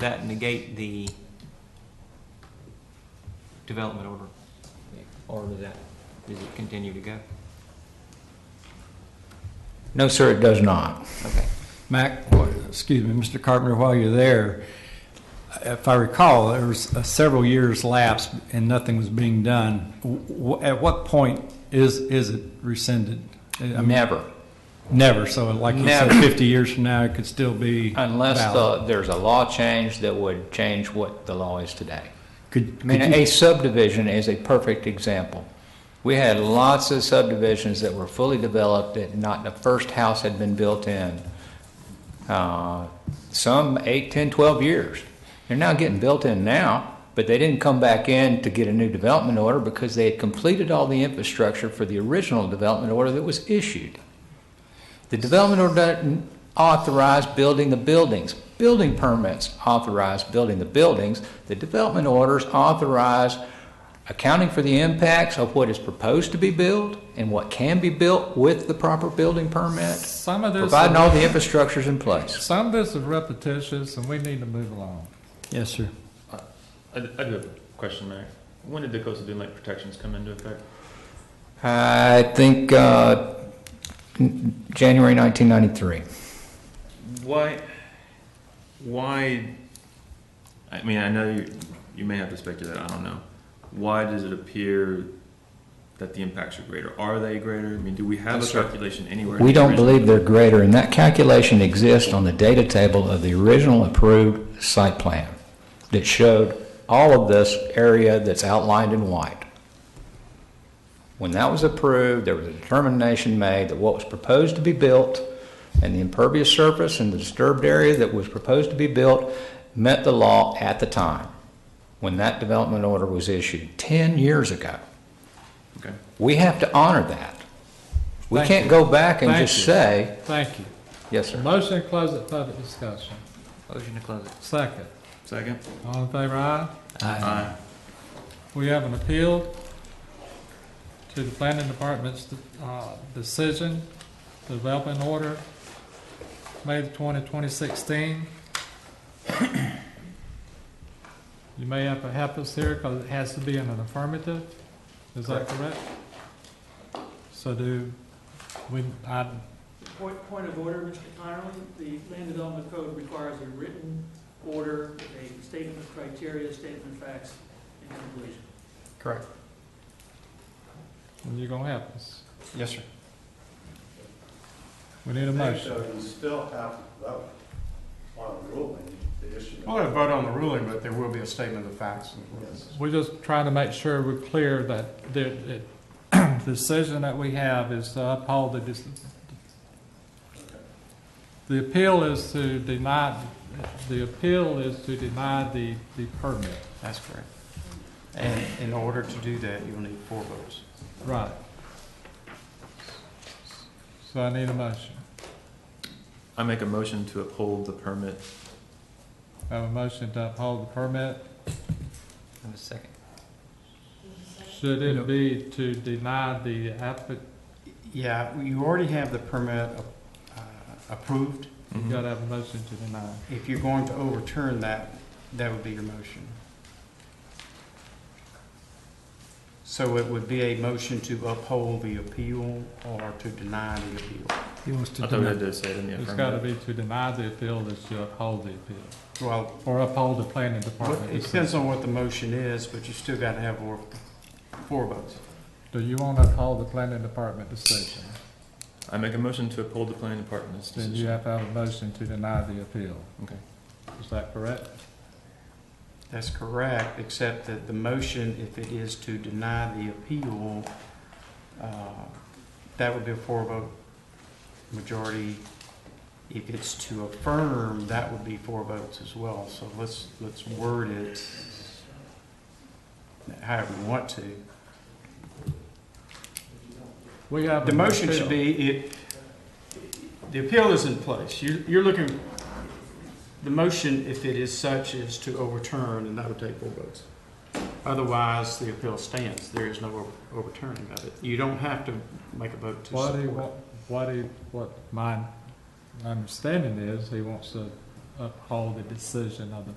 that negate the development order? Or does that, does it continue to go? No, sir, it does not. Okay. Mac, wh- excuse me, Mr. Carpenter, while you're there, if I recall, there was uh, several years lapsed and nothing was being done. W- w- At what point is, is it rescinded? I mean, Never, Never, so like you said, Never. 50 years from now, it could still be unless uh, valid. the, there's a law change that would change what the law is today. Could, I mean, could you- a subdivision is a perfect example. We had lots of subdivisions that were fully developed that not the first house had been built in. Uh, some eight, 10, 12 years. They're now getting built in now, but they didn't come back in to get a new development order because they had completed all the infrastructure for the original development order that was issued. The development order doesn't authorize building the buildings. Building permits authorize building the buildings. The development orders authorize accounting for the impacts of what is proposed to be built and what can be built with the proper building permit, Some of this, providing all the infrastructure's in place. some of this is repetitious, and we need to move along. yes, sir. I, I do have a question, Mayor. When did the coastal dune lake protections come into effect? I think uh, n- January 1993. Why? Why? I mean, I know you, you may have to speculate. I don't know. Why does it appear that the impacts are greater? Are they greater? I mean, do we have a calculation anywhere? in We the don't original- believe they're greater, and that calculation exists on the data table of the original approved site plan that showed all of this area that's outlined in white. When that was approved, there was a determination made that what was proposed to be built and the impervious surface and the disturbed area that was proposed to be built met the law at the time when that development order was issued 10 years ago. Okay. We have to honor that. We Thank can't go back and Thank just you. say, Thank you. yes, sir. Motion to close the public discussion. Motion to close it. Second. Second. All in favor, aye? Aye. We have an appeal to the planning department's, uh, decision, development order, May the twentieth, twenty sixteen. You may have to help us here, because it has to be in an affirmative, is that correct? So do, we, I, Point, point of order, Mr. Connerly, the land development code requires a written order, a statement of criteria, statement of facts, and conclusion. Correct. you're gonna help us. Yes, sir. We need a motion. So you still have to vote on the ruling, the issue. I want to vote on the ruling, but there will be a statement of facts. Yes. We're just trying to make sure we're clear that the, it- the decision that we have is to uphold the, dis- the appeal is to deny, the appeal is to deny the, the permit. That's correct. And in order to do that, you'll need four votes. Right. So I need a motion. I make a motion to uphold the permit. I have a motion to uphold the permit. Have a second. Should it be to deny the applic, Yeah, you already have the permit uh, approved. you gotta have a motion to deny. If you're going to overturn that, that would be your motion. So it would be a motion to uphold the appeal or to deny the appeal. He wants to I thought we do had it. to say it in the It's affirmative. gotta be to deny the appeal, that's to uphold the appeal, Well, or uphold the planning what- department. it depends on what the motion is, but you still got to have four, four votes. Do you want to uphold the planning department decision? I make a motion to uphold the planning department's Then you decision. have to have a motion to deny the appeal. Okay. Is that correct? That's correct, except that the motion, if it is to deny the appeal, uh, that would be a four vote majority. If it's to affirm, that would be four votes as well. So let's, let's word it however we want to. We have. The an motion appeal. should be, it, the appeal is in place. You're, you're looking, the motion, if it is such, is to overturn, and that would take four votes. Otherwise, the appeal stands. There is no over- overturning of it. You don't have to make a vote to What he, wa- support. what he, what my understanding is, he wants to uphold the decision of the